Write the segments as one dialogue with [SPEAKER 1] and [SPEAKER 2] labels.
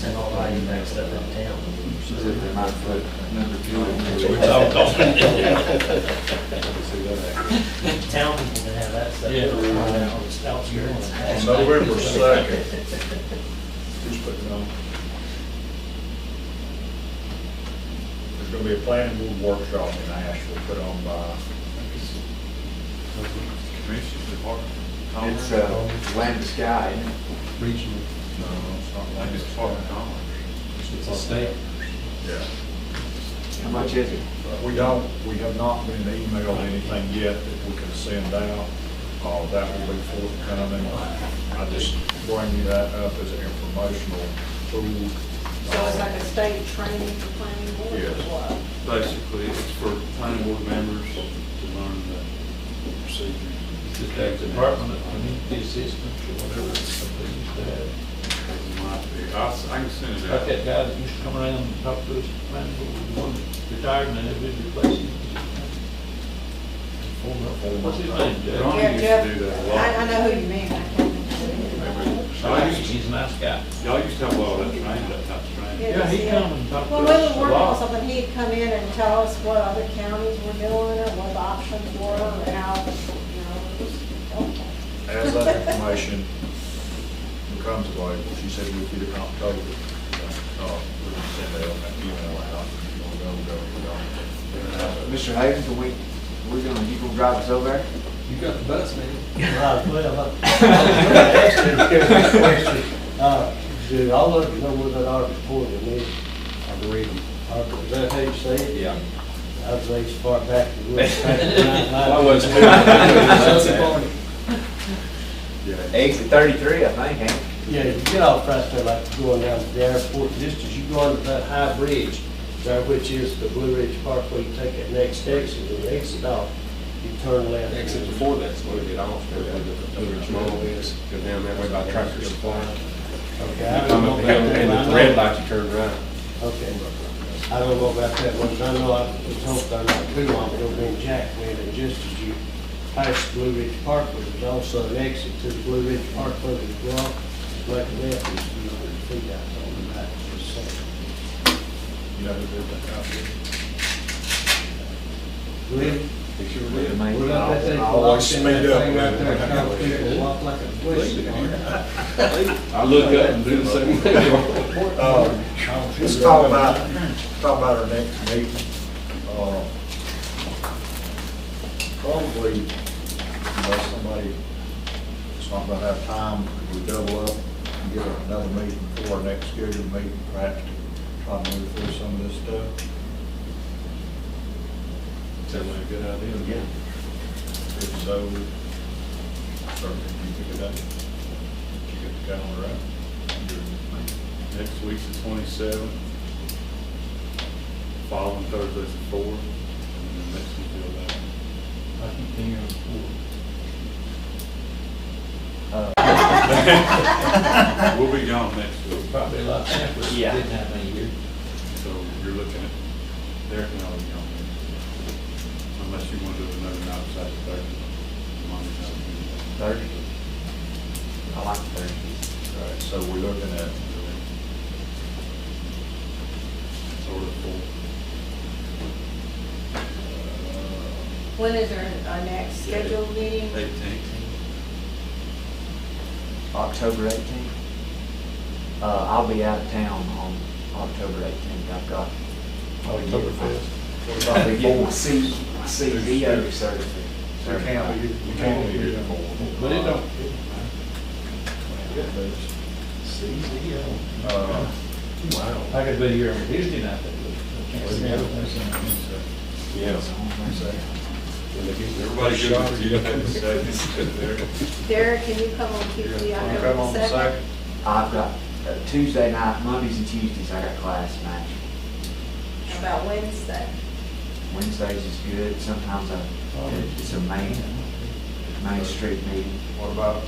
[SPEAKER 1] bringing back stuff out of town.
[SPEAKER 2] She's at the nine foot number two.
[SPEAKER 3] We're talking.
[SPEAKER 1] Town people can have that stuff.
[SPEAKER 3] Yeah.
[SPEAKER 1] It's outskirts.
[SPEAKER 4] On November second. Who's putting it on? There's gonna be a planning board workshop in Asheville put on by,
[SPEAKER 5] Commissioners Department.
[SPEAKER 2] It's, uh, land to sky.
[SPEAKER 3] Regional,
[SPEAKER 4] no, it's not
[SPEAKER 5] Like
[SPEAKER 4] uh, like
[SPEAKER 5] it's
[SPEAKER 4] this
[SPEAKER 5] part
[SPEAKER 4] far.
[SPEAKER 5] of Congress.
[SPEAKER 3] it's a state.
[SPEAKER 4] Yeah.
[SPEAKER 2] How much is it?
[SPEAKER 4] But We don't, we have not been emailed anything yet that we can send out. Uh, that will be forthcoming. I just bring you that up as an informational tool.
[SPEAKER 6] So it's like a state training for planning board or
[SPEAKER 4] Yes.
[SPEAKER 6] what?
[SPEAKER 5] Basically, it's for planning board members to learn the procedure.
[SPEAKER 3] It's a state department of community assistance or whatever it's called. They used to have.
[SPEAKER 5] It might be. I'll, s- I can send it
[SPEAKER 3] Like that
[SPEAKER 5] out.
[SPEAKER 3] guy that used to come around and talk to us, man, the one that retired and then they replaced him. What's his name, Jeff?
[SPEAKER 5] Ron used
[SPEAKER 6] Yeah,
[SPEAKER 5] to
[SPEAKER 6] Jeff,
[SPEAKER 5] do that a lot.
[SPEAKER 6] I, I know who you mean, I can't remember. who it is.
[SPEAKER 5] Y'all used to-
[SPEAKER 3] He's a nice guy.
[SPEAKER 5] y'all used to have a lot of that training, that type of training.
[SPEAKER 3] Yeah, he come and talk to
[SPEAKER 6] Well, we
[SPEAKER 3] us
[SPEAKER 6] were
[SPEAKER 3] a
[SPEAKER 6] working on
[SPEAKER 3] lot.
[SPEAKER 6] something, he'd come in and tell us what other counties were doing, or what the options were, or how, you know, it was helpful.
[SPEAKER 4] As that information becomes available, she said we'd get it in October. Uh, we can send out that email out. www.gov.gov.
[SPEAKER 2] Mr. Hayden, can we, we're gonna, you gonna drive us over there?
[SPEAKER 7] You got the bus, man.
[SPEAKER 1] Right, well, uh, Do all of you know what that Article four is?
[SPEAKER 7] I believe him.
[SPEAKER 1] Article, is that how you say it?
[SPEAKER 7] Yeah.
[SPEAKER 1] I was raised far back. as we were back in
[SPEAKER 7] I
[SPEAKER 1] 99.
[SPEAKER 7] was too. That's
[SPEAKER 4] Yeah.
[SPEAKER 2] Exit thirty-three, I think, ain't it?
[SPEAKER 1] Yeah, you get off right there, like going down to the airport, just as you go onto that high bridge, there which is the Blue Ridge Parkway, you take that next exit, and you exit off, you turn left.
[SPEAKER 7] Except before that's where we get off, where the Blue Ridge Mall is, go down that way by Tractor Supply.
[SPEAKER 1] Okay, I don't
[SPEAKER 7] Come
[SPEAKER 1] know
[SPEAKER 7] up
[SPEAKER 1] about
[SPEAKER 7] the hill
[SPEAKER 1] that.
[SPEAKER 7] and the red light, you turn right.
[SPEAKER 1] Okay. I don't know about that one, but I know I was hoping they're not too long, it'll be in Jackman, and just as you pass Blue Ridge Parkway, there's also an exit to the Blue Ridge Parkway as well. Like that, it's, you know, the feet out on the back, just saying.
[SPEAKER 4] You know who did that out there?
[SPEAKER 1] Really?
[SPEAKER 7] It sure
[SPEAKER 2] We're the
[SPEAKER 7] did.
[SPEAKER 2] main-
[SPEAKER 7] We're not that thing.
[SPEAKER 4] I always
[SPEAKER 7] locked in
[SPEAKER 4] speed
[SPEAKER 7] that
[SPEAKER 4] up
[SPEAKER 7] thing right
[SPEAKER 4] when
[SPEAKER 7] there,
[SPEAKER 4] we-
[SPEAKER 7] kind of figure it walk like a bush.
[SPEAKER 5] I look up and do the same thing.
[SPEAKER 4] Uh, Let's talk about, talk about our next meeting. Uh, Probably, unless somebody, it's not gonna have time, we double up and get another meeting for our next scheduled meeting, perhaps to try to move through some of this stuff.
[SPEAKER 5] Sounds like a good idea.
[SPEAKER 4] If so, certainly you pick it up. You get the calendar out.
[SPEAKER 5] Next week's the twenty-seventh. Following Thursday's the fourth, and then next week's the eleventh.
[SPEAKER 3] I keep thinking of four.
[SPEAKER 5] We'll be gone next week,
[SPEAKER 3] Probably a lot simpler, if you
[SPEAKER 1] Yeah.
[SPEAKER 3] didn't have any here.
[SPEAKER 5] so you're looking at, Derek and I will be gone. next week. Unless you want to do another night outside the Thursday. Monday night.
[SPEAKER 2] Thirty. I like thirty.
[SPEAKER 4] All right, so we're looking at
[SPEAKER 5] Sort of four. Uh,
[SPEAKER 6] When is our, our next scheduled meeting?
[SPEAKER 5] Eighteenth.
[SPEAKER 2] October eighteenth. Uh, I'll be out of town on October eighteenth. I've got.
[SPEAKER 3] Oktoberfest.
[SPEAKER 2] I'll be getting my C, my CVO certificate.
[SPEAKER 4] You can't be, you can't be here for.
[SPEAKER 3] But it don't,
[SPEAKER 4] Uh,
[SPEAKER 3] I could be here on Tuesday night, but I can't see it.
[SPEAKER 7] Yeah.
[SPEAKER 5] Everybody good with you, have a second, Derek?
[SPEAKER 6] Derek, can you come on Tuesday, I
[SPEAKER 4] Come
[SPEAKER 6] know
[SPEAKER 4] on
[SPEAKER 6] the
[SPEAKER 4] the
[SPEAKER 6] second?
[SPEAKER 4] second.
[SPEAKER 2] I've got uh, Tuesday night, Mondays and Tuesdays, I got class in Nashville.
[SPEAKER 6] About Wednesday,
[SPEAKER 2] Wednesdays is good. Sometimes I, it's a main, main street meeting.
[SPEAKER 4] What about,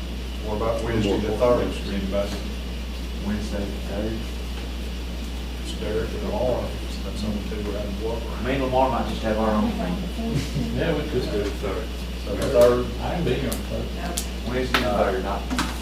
[SPEAKER 4] what about Wednesday the third, is anybody,
[SPEAKER 2] Wednesday, Thursday.
[SPEAKER 4] it's Derek and Laura, that's on the two around the block.
[SPEAKER 2] Me and Lamar might just have our own thing.
[SPEAKER 3] Yeah, we could
[SPEAKER 5] Let's do
[SPEAKER 3] do
[SPEAKER 5] the
[SPEAKER 3] it.
[SPEAKER 5] third.
[SPEAKER 4] So the third,
[SPEAKER 3] I can be here on Thursday.
[SPEAKER 6] no.
[SPEAKER 2] Wednesday and Thursday. I-